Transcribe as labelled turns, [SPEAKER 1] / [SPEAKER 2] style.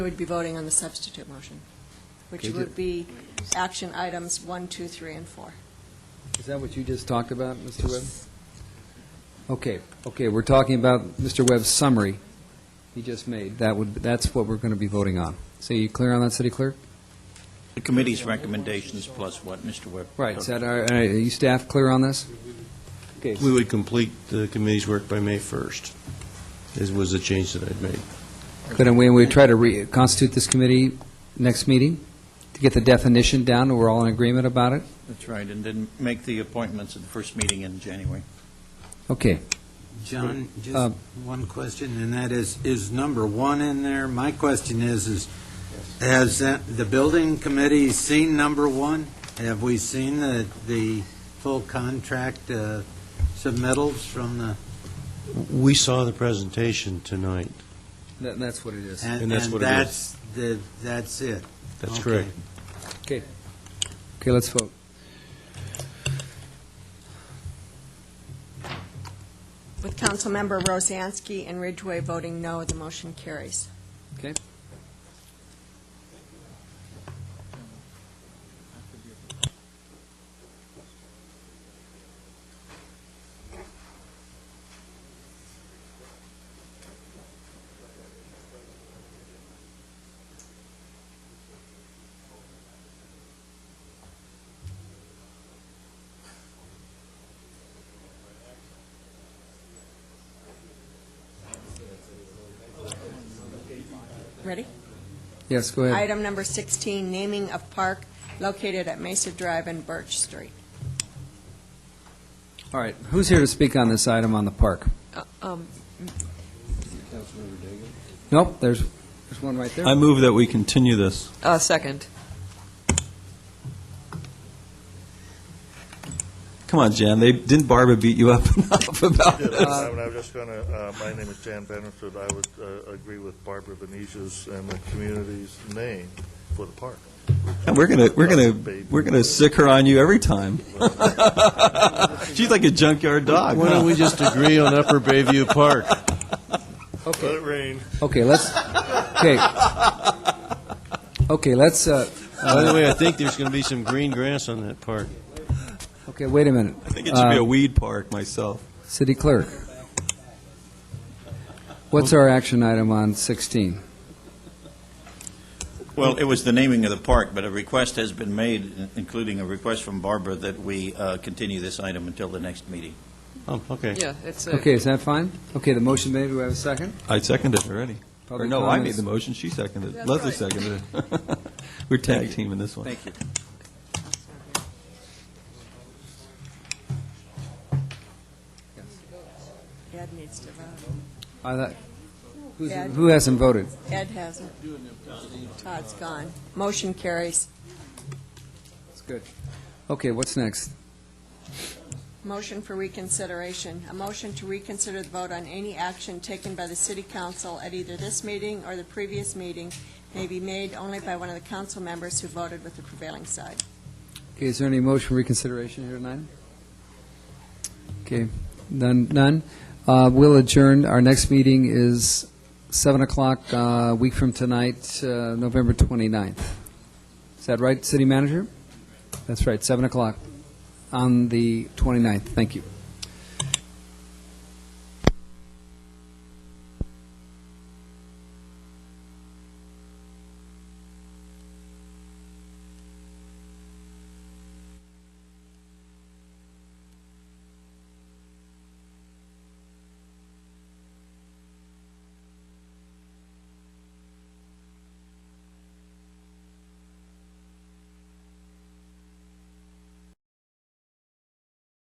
[SPEAKER 1] You would be voting on the substitute motion, which
[SPEAKER 2] Okay,
[SPEAKER 1] would be action items one, two, three, and four.
[SPEAKER 2] Is that what you just talked about, Mr. Webb? Okay, okay, we're talking about Mr. Webb's summary he just made. That would, that's what we're going to be voting on. So you clear on that, City Clerk?
[SPEAKER 3] The committee's recommendations plus what, Mr. Webb?
[SPEAKER 2] Right, is that, are are you staff clear on this? Okay,
[SPEAKER 4] We would complete the committee's work by May 1st, is, was the change that I'd made.
[SPEAKER 2] couldn't we, we try to reconstitute this committee next meeting to get the definition down, and we're all in agreement about it?
[SPEAKER 3] That's right, and then make the appointments at the first meeting in January.
[SPEAKER 2] Okay,
[SPEAKER 5] John,
[SPEAKER 2] Uh,
[SPEAKER 5] just one question, and that is, is number one in there? My question is, is has that- the building committee seen number one? Have we seen the, the full contract uh, submittals from the?
[SPEAKER 4] We saw the presentation tonight.
[SPEAKER 2] That- that's what it is.
[SPEAKER 4] And that's what it is.
[SPEAKER 5] that's the- that's it?
[SPEAKER 4] That's
[SPEAKER 5] Okay.
[SPEAKER 4] correct.
[SPEAKER 2] Okay, let's vote.
[SPEAKER 1] With Councilmember Rosansky and Ridgway voting no, the motion carries. Ready?
[SPEAKER 2] Yes, go ahead.
[SPEAKER 1] Item number 16, naming of park located at Mesa Drive and Birch Street.
[SPEAKER 2] All right, who's here to speak on this item on the park?
[SPEAKER 6] Uh, um,
[SPEAKER 2] Nope, there's, there's one right there.
[SPEAKER 7] I move that we continue this.
[SPEAKER 6] Uh, second.
[SPEAKER 7] Come on, Jan, they, didn't Barbara beat you up enough about
[SPEAKER 8] Yeah,
[SPEAKER 7] this?
[SPEAKER 8] I mean, I'm just going to, my name is Jan Benford. I would uh, agree with Barbara Venetia's and the community's name for the park.
[SPEAKER 7] And we're gonna, we're gonna, we're gonna sick her on you every time. She's like a junkyard dog.
[SPEAKER 4] Why don't we just agree on Upper Bayview Park?
[SPEAKER 8] Let it rain.
[SPEAKER 2] Okay, let's, okay. Okay, let's, uh,
[SPEAKER 4] By the way, I think there's going to be some green grass on that park.
[SPEAKER 2] okay, wait a minute.
[SPEAKER 7] I think it should be
[SPEAKER 2] Uh,
[SPEAKER 7] a weed park myself.
[SPEAKER 2] City Clerk. What's our action item on 16?
[SPEAKER 3] Well, it was the naming of the park, but a request has been made, in- including a request from Barbara, that we uh, continue this item until the next meeting.
[SPEAKER 4] Oh, okay.
[SPEAKER 6] Yeah, it's a.
[SPEAKER 2] Okay, is that fine? Okay, the motion made, do we have a second?
[SPEAKER 7] I seconded it already. Or
[SPEAKER 2] Public
[SPEAKER 7] no, I made
[SPEAKER 2] comments?
[SPEAKER 7] the motion, she seconded it.
[SPEAKER 1] That's
[SPEAKER 7] Leslie
[SPEAKER 1] right.
[SPEAKER 7] seconded it. We're tag teaming this one.
[SPEAKER 3] Thank you.
[SPEAKER 1] Ed needs to vote.
[SPEAKER 2] I thought- who's-
[SPEAKER 1] Ed.
[SPEAKER 2] Who hasn't voted?
[SPEAKER 1] Ed hasn't. Todd's gone. Motion carries.
[SPEAKER 2] That's good. Okay, what's next?
[SPEAKER 1] Motion for reconsideration. A motion to reconsider the vote on any action taken by the city council at either this meeting or the previous meeting may be made only by one of the council members who voted with the prevailing side.
[SPEAKER 2] Okay, is there any motion for reconsideration here tonight? Okay, none, none. Uh, We'll adjourn. Our next meeting is 7 o'clock, a week from tonight, uh, November 29th. Is that right, City Manager? That's right, 7 o'clock on the 29th. Thank you.